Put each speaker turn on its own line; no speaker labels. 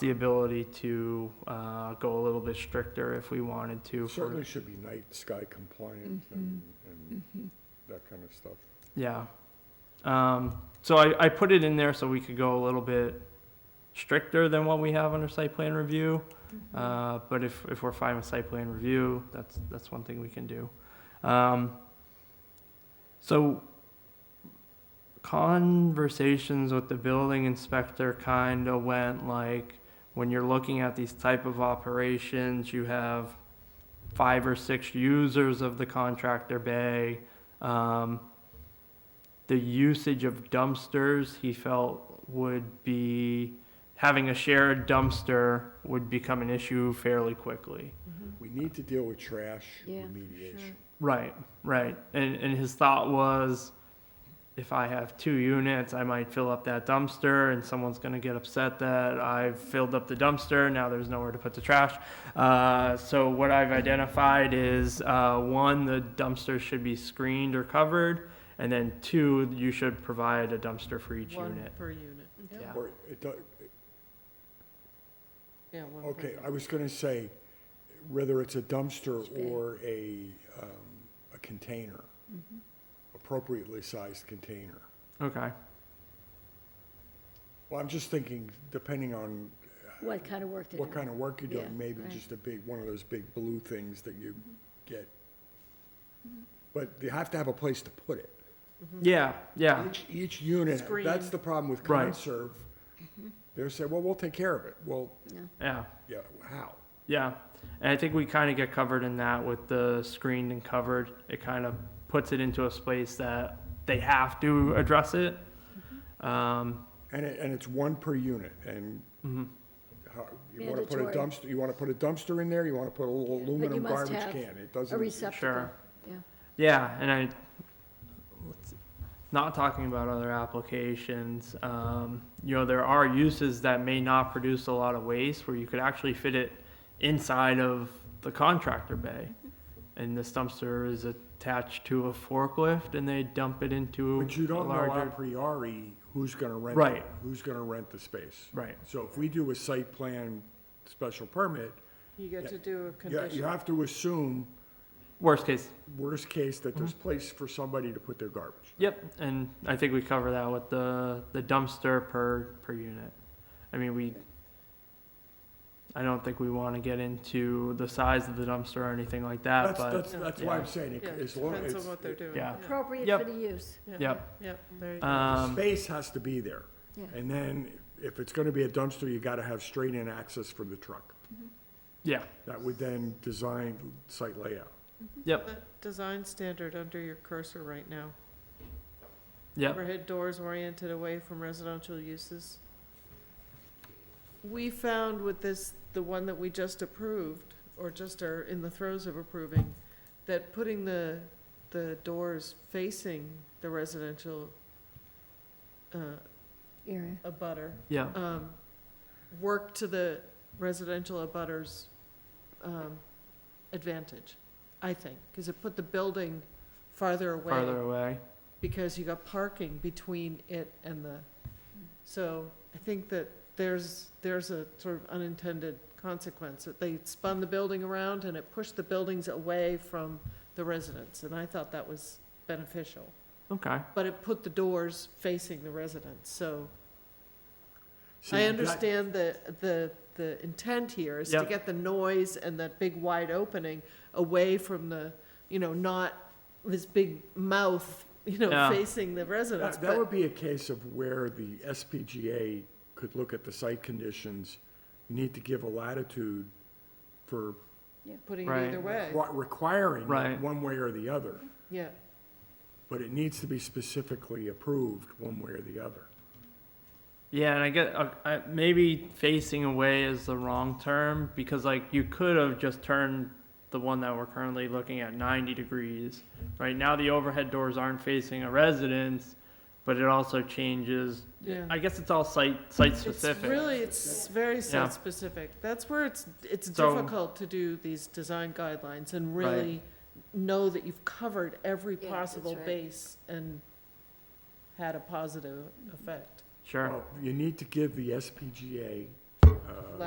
the ability to uh, go a little bit stricter if we wanted to. for-
Certainly should be night sky compliant
Mm-hmm.
and, and that kind of stuff.
Yeah. Um, so I, I put it in there so we could go a little bit stricter than what we have under site plan review. Uh, but if, if we're fine with site plan review, that's, that's one thing we can do. Um, so conversations with the building inspector kind of went like, when you're looking at these type of operations, you have five or six users of the contractor bay. Um, the usage of dumpsters he felt would be having a shared dumpster would become an issue fairly quickly.
Mm-hmm.
We need to deal with trash
Yeah,
remediation.
sure.
Right, right. And and his thought was if I have two units, I might fill up that dumpster and someone's going to get upset that I've filled up the dumpster. Now there's nowhere to put the trash. Uh, so, what I've identified is uh, one, the dumpster should be screened or covered. And then two, you should provide a dumpster for each
One
unit.
per unit.
Yeah.
Or it do-
Yeah, one per.
okay,
unit.
I was gonna say, whether it's a dumpster
It's big.
or a, um, a container,
Mm-hmm.
appropriately sized container.
Okay.
Well, I'm just thinking, depending on
What kind of work to do?
what kind of work you're doing,
Yeah,
maybe
right. Mm-hmm.
just a big, one of those big blue things that you get. But you have to have a place to put it.
Yeah, yeah,
Each, each unit, that's
Screen.
the problem with
Right.
conserve.
Mm-hmm.
They're saying, well, we'll take care of it. Well,
yeah,
yeah, how?
yeah. And I think we kind of get covered in that with the screened and covered. It kind of puts it into a space that they have to address it. Um,
And it, and it's one per unit and
mhm.
how, you wanna put a
Mandatory.
dumpster, you wanna put a dumpster in there? You wanna put a little aluminum
must
garbage
have
can? It
A
doesn't,
receptacle, yeah.
Yeah, and I, let's- not talking about other applications, um, you know, there are uses that may not produce a lot of waste where you could actually fit it inside of the contractor bay. And this dumpster is attached to a forklift and they dump it into
but you
a
don't know a
larger.
priori who's gonna rent. it,
Right.
Who's gonna rent the space?
Right,
So if we do a site plan special permit,
You get to do a
you, you
condition.
have to assume,
worst case,
worst case, that there's
Mm-hmm.
place for somebody to put their garbage.
Yep, and I think we cover that with the, the dumpster per, per unit. I mean, we, I don't think we wanna get into the size of the dumpster or anything like that,
That's,
but,
that's, that's why I'm saying, it-
Yeah,
as long as.
depends on what they're doing.
yeah.
Appropriate
Yep.
for the use,
Yep.
Yeah, there you go.
The
um,
space has to be there.
Yeah.
And then, if it's gonna be a dumpster, you gotta have straight-in access for the truck.
Mm-hmm. yeah,
That would then design site layout.
Mm-hmm.
That Design standard under your cursor right now.
yep,
Overhead doors oriented away from residential uses. We found with this, the one that we just approved, or just are in the throes of approving, that putting the, the doors facing the residential, uh,
area.
abutter,
yeah,
um, work to the residential abutters, um, advantage, I think, because it put the building farther away
farther away,
because you got parking between it and the, so I think that there's, there's a sort of unintended consequence, that they spun the building around and it pushed the buildings away from the residents, and I thought that was beneficial.
okay,
But it put the doors facing the residents, so
See,
I
that-
understand the, the, the intent here is to
Yep.
get the noise and that big wide opening away from the, you know, not this big mouth, you know,
Yeah.
facing the residents,
That, that
but
would be a case of where the SPGA could look at the site conditions, You need to give a latitude for
putting
Right.
it either way,
requi- requiring
Right.
one way or the other.
yeah.
But it needs to be specifically approved one way or the other.
yeah, and I get, uh, I, maybe facing away is the wrong term, because like, you could have just turned the one that we're currently looking at ninety degrees. Right now, the overhead doors aren't facing a residence, but it also changes
Yeah.
I guess it's all site, site
It's
specific.
really, it's very
Yeah.
site-specific, that's where it's, it's
So-
difficult to do these design guidelines and
Right.
really know that you've covered every
Yeah, that's
possible
right.
base and had a positive effect.
Sure,
Well, You need to give the SPGA, uh,